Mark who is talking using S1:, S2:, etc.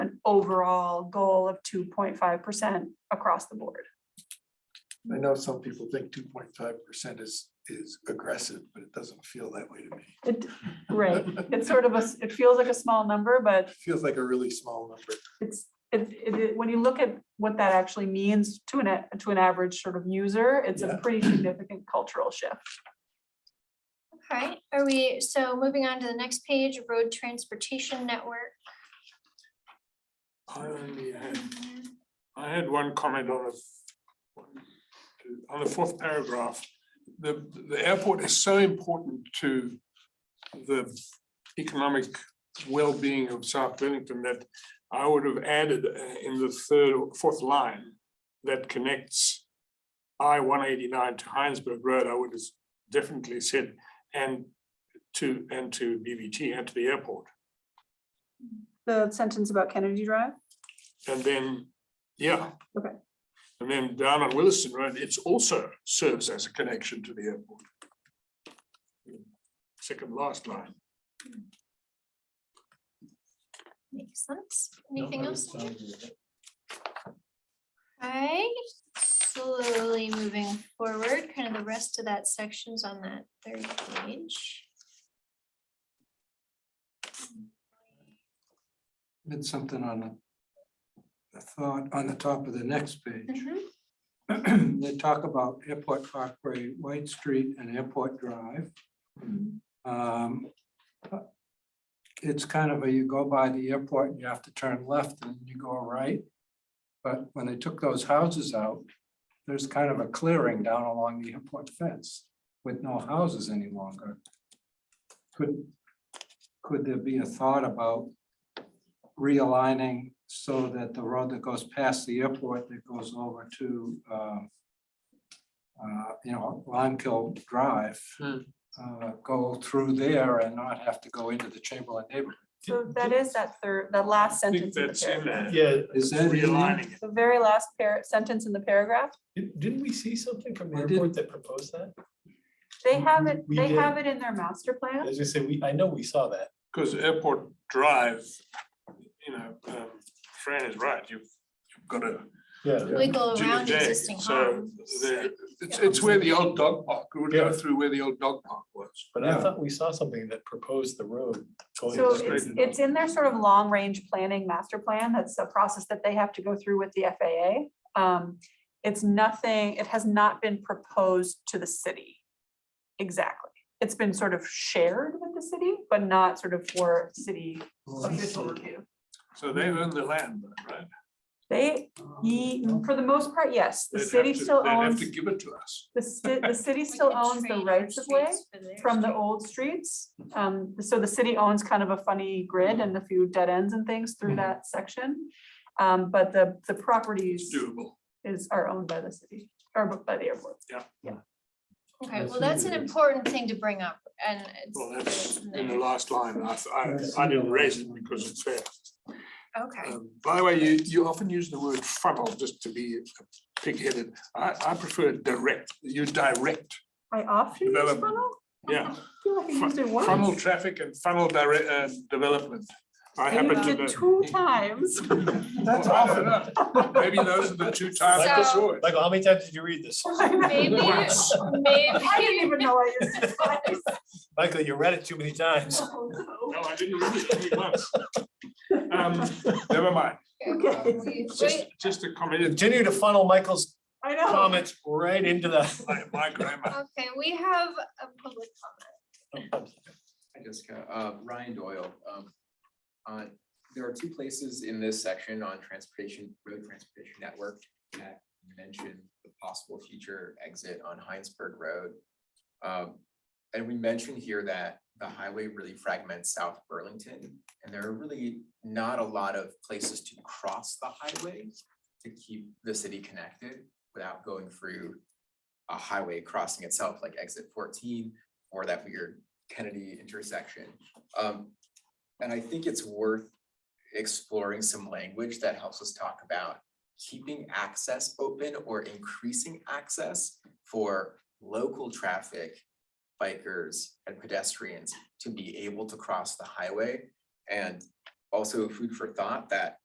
S1: overall goal of two point five percent across the board.
S2: I know some people think two point five percent is, is aggressive, but it doesn't feel that way to me.
S1: It, right, it's sort of a, s- it feels like a small number, but
S2: It feels like a really small number.
S1: it's, it, it, it- when you look at what that actually means to an, a- to an average sort of user, it's
S2: Yeah.
S1: a pretty significant cultural shift.
S3: Alright, are we, so moving on to the next page, road transportation network.
S4: I only had, I had one comment on the, f- on the fourth paragraph. The, the airport is so important to the economic well-being of South Burlington that I would have added uh, in the third or fourth line that connects I one eighty-nine to Heinsberg Road, I would have definitely said, and to, and to BVT and to the airport.
S1: The sentence about Kennedy Drive?
S4: And then, yeah.
S1: Okay.
S4: And then down on Williston Road, it's also serves as a connection to the airport. Second last line.
S3: Makes sense. Anything else? Alright, slowly moving forward, kind of the rest of that section's on that third page.
S5: Did something on the- the thought on the top of the next page.
S1: Mm-hmm.
S3: Mhm.
S5: They talk about Airport Parkway, White Street and Airport Drive. Um, It's kind of a, you go by the airport and you have to turn left and you go right. But when they took those houses out, there's kind of a clearing down along the airport fence with no houses any longer. Could, could there be a thought about realigning so that the road that goes past the airport that goes over to, uh, uh, you know, Limekiln Drive,
S4: Hmm.
S5: uh, go through there and not have to go into the Chamberlain neighborhood.
S1: So that is that third, that last
S4: I think
S1: sentence. in the
S4: that's in
S1: paragraph.
S4: there.
S6: Yeah,
S5: Is that? in there?
S4: Realigning it.
S1: The very last par, sentence in the paragraph,
S6: di- didn't we see something from the
S5: I did.
S6: airport that proposed that?
S1: they have it,
S6: We
S1: they
S6: did.
S1: have it in their master plan.
S6: As you say, we, I know we saw that.
S4: Because Airport Drive, you know, um, Fran is right, you've, you've got to.
S6: Yeah.
S3: We go around existing
S4: So
S3: homes.
S4: there, it's, it's where the old dog park, it would go through where the old dog park was.
S6: But I
S5: Yeah.
S6: thought we saw something that proposed the road. going
S1: So
S6: straight
S1: it's,
S6: and
S1: it's in their sort of long-range planning master plan. That's a process that they have to go through with the FAA. Um, it's nothing, it has not been proposed to the city. Exactly. It's been sort of shared with the city, but not sort of for city official review.
S4: So they own the land, though, right?
S1: They, ye- for the most part, yes, the
S4: Um, They'd have
S1: city
S4: to-
S1: still
S4: they'd have
S1: owns,
S4: to give it to us.
S1: the ci- the city
S3: We
S1: still
S3: could
S1: owns the
S3: trade our
S1: rights of way.
S3: streets for their
S1: from the
S3: streets.
S1: old streets. Um, so the city owns kind of a funny grid and a few dead ends and things through
S5: Mhm.
S1: that section. Um, but the, the properties
S4: Mm-hmm. It's doable.
S1: is, are owned by the city, or by the airport.
S3: Okay, well, that's an important thing to bring up and
S4: Well,
S3: it's.
S4: that's in the last line. I, I, I didn't raise it because it's there.
S3: Okay,
S4: Um, By the way, you, you often use the word funnel just to be pig-headed. I, I prefer direct, you direct,
S1: I often use
S4: Development.
S1: funnel.
S4: yeah.
S1: I feel like I used it once.
S4: Funnel traffic and funnel direct, uh, development. I
S1: I
S4: happen
S1: used
S4: to
S1: it
S4: know.
S1: two times.
S4: That's often. Maybe those are the two times I
S3: So-
S4: saw it.
S6: Michael, how many times did you read this?
S3: maybe,
S4: Once.
S1: I didn't
S3: maybe,
S1: even know I used it twice.
S6: Michael, you read it too many times.
S1: Oh,
S4: No, I didn't read it only once. Um, Never mind,
S1: Okay.
S3: we-
S4: just, just a comment,
S6: Continue to funnel Michael's
S1: I know.
S6: comments right into the.
S4: my, my grammar.
S3: okay, we have a public comment.
S7: Hi Jessica, uh, Ryan Doyle. um, uh, There are two places in this section on transportation, road transportation network that mention the possible future exit on Heinsberg Road. Um, And we mentioned here that the highway really fragments South Burlington, and there are really not a lot of places to cross the highway to keep the city connected without going through a highway crossing itself, like exit fourteen, or that weird Kennedy intersection. Um, and I think it's worth exploring some language that helps us talk about keeping access open or increasing access for local traffic, bikers and pedestrians to be able to cross the highway. And also food for thought that